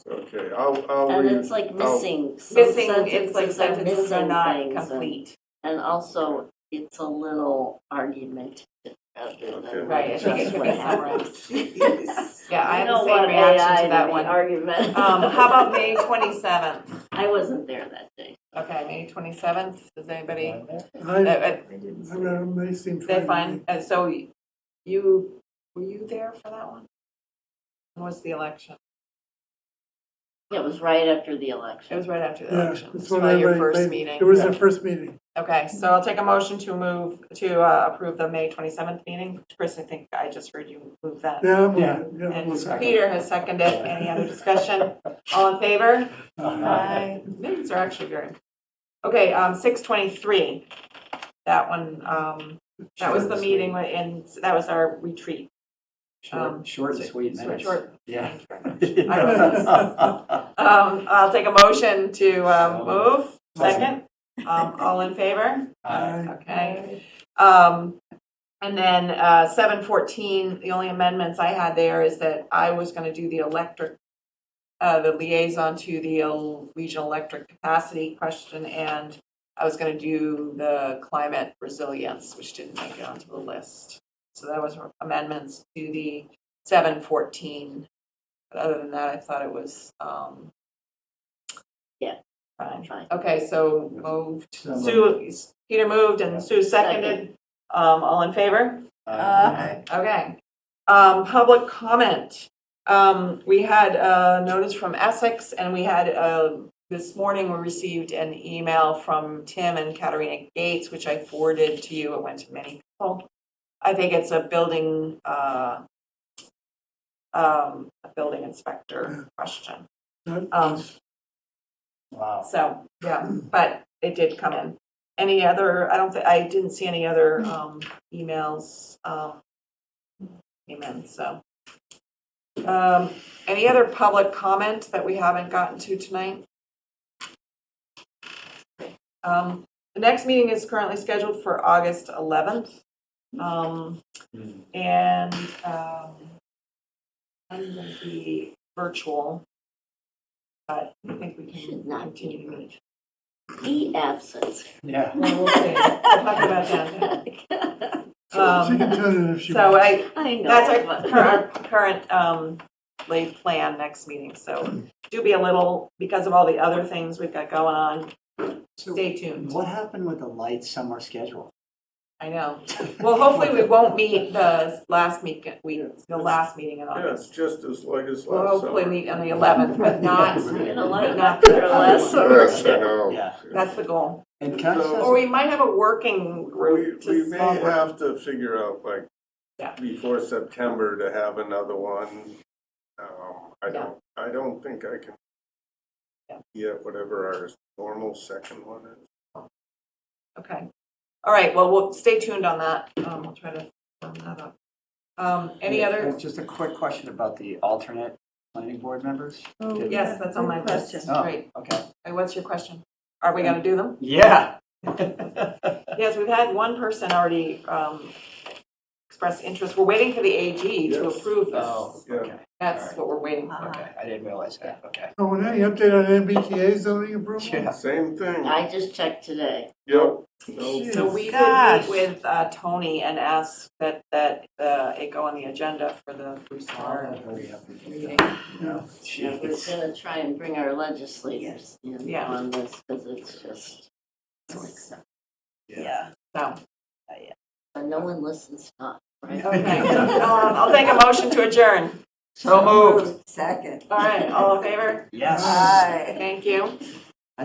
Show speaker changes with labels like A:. A: Okay, I'll, I'll
B: And
A: read.
B: it's like
A: I'll-
B: missing, some
C: Missing, it's like
B: sentences are
C: sentences are
B: missing
C: not
B: things. and-
C: complete.
B: And also, it's a little argumentative. rather
A: Okay.
B: than
C: Right, I think it
B: just
C: could
B: what
C: be summarized.
B: happens.
C: Yeah, I
B: You
C: have
B: know
C: the
B: what,
C: same reaction
B: AI,
C: to that
B: the
C: one. Um,
B: Argument.
C: how about May twenty-seventh?
B: I wasn't there that day.
C: Okay, May twenty-seventh, does anybody, uh,
D: I,
C: uh,
D: I don't know, they seem
C: is
D: fine.
C: that
D: to
C: fine?
D: me.
C: Uh, so you, were you there for that one? When was the election?
B: It was right after the
C: It
B: election.
C: was right after the
D: Yeah,
C: election,
D: it's
C: it's probably
D: whatever,
C: your
D: it
C: first
D: may-
C: meeting.
D: It was their first meeting.
C: Okay, so I'll take a motion to move, to uh, approve the May 27th meeting. Chris, I think I just heard you move that.
D: Yeah, I'm-
E: Yeah.
D: yeah.
C: And
D: I'm-
E: second.
C: Peter has seconded. Any other discussion? All in favor?
E: Uh,
C: Aye. Minutes are actually very. Okay, um, 6:23. That one, um, that was the meeting, with- and that was our retreat. Um,
E: Short, short and sweet
C: so
E: minutes.
C: short.
E: Yeah.
C: Thank you very much. Um, I'll take a motion to um, move. Second. Um, All in favor?
E: Uh,
D: I-
C: Okay. Um, and then, uh, seven fourteen, the only amendments I had there is that I was gonna do the electric, uh, the liaison to the el- regional electric capacity question, and I was gonna do the climate resilience, which didn't make it onto the list. So that was amendments to the seven fourteen. But other than that, I thought it was, um.
B: Yeah.
C: Fine.
B: Fine.
C: Okay, so moved
E: So
C: Sue, Peter moved and Sue seconded. Um, all in favor?
E: uh,
C: Okay. Um, public comment. Um, we had a notice from Essex and we had, uh, this morning we received an email from Tim and Katerina Gates, which I forwarded to you. It went to many people. I think it's a building, uh, um, a building inspector question. Um,
E: Wow.
C: so, yeah, but it did come in. Any other, I don't, thi- I didn't see any other um, emails. um, Came in, so. Um, Any other public comment that we haven't gotten to tonight? Um, The next meeting is currently scheduled for August 11th. Um,
E: Hmm.
C: And um, I'm going to be virtual, but I think we can
B: Should not be
C: continue.
B: rude. Be absent.
E: Yeah.
C: Well, we'll see. We'll talk about that.
D: She
C: Um,
D: can turn it if she
C: So
D: wants.
C: I,
B: I know.
C: that's our
B: but-
C: cur- our current um, laid plan next meeting, so do be a little, because of all the other things we've got going on,
E: So
C: stay tuned.
E: what happened with the light summer schedule?
C: I know. Well, hopefully we won't meet the last meet, we, the last meeting in
A: Yeah,
C: August.
A: it's just as like as
C: uh, We'll
A: last
C: hopefully
A: summer.
C: meet on the 11th, but not,
B: Been
E: Yeah.
B: a lot
C: but
B: of-
C: not
B: been
C: the
B: a lot of
C: last.
B: summer
A: Yes, I know.
E: Yeah.
C: That's the goal.
E: And can I just
A: So-
E: ask-
C: Or we might have a working
A: We,
C: group
A: we
C: to
A: may
C: small group.
A: have to figure out like
C: Yeah.
A: before September to have another one. Um, I don't, I don't think I can.
C: Yeah.
A: Yeah, whatever our normal second one is.
C: Okay. All right, well, we'll stay tuned on that. Um, we'll try to firm that up. Um, any
E: Yeah,
C: other,
E: uh, Just a quick question about the alternate planning board members.
F: Oh,
E: Did-
C: yes, that's on my
F: Good
C: list.
F: question.
E: Oh,
C: Right.
E: Okay.
C: Uh, What's your question? Are we gonna do them?
E: Yeah.
C: Yes, we've had one person already, um, express interest. We're waiting for the AG to
A: Yes.
C: approve
E: Oh,
C: this.
E: okay,
C: That's what we're waiting for.
E: okay. I didn't realize that. Okay.
D: Oh, and any update on MBTA zoning approval?
E: Yeah.
A: Same thing.
B: I just checked today.
A: Yep.
D: Jeez.
C: So we could
F: Gosh.
C: meet with, uh, Tony and ask that, that, uh, it go on the agenda for the Bruce Lar
E: Hurry up and do
C: meeting.
E: that.
D: Yeah.
B: Yeah, we're
E: Jeez.
B: gonna try and bring our legislators in
C: Yeah.
B: on this, because it's just,
E: Yeah.
C: So,
B: but no one listens to us, right?
C: okay. Um, I'll take a motion to adjourn.
E: So moved.
F: Second.
C: All right, all in favor?
E: Yes.
F: Aye.
C: Thank you.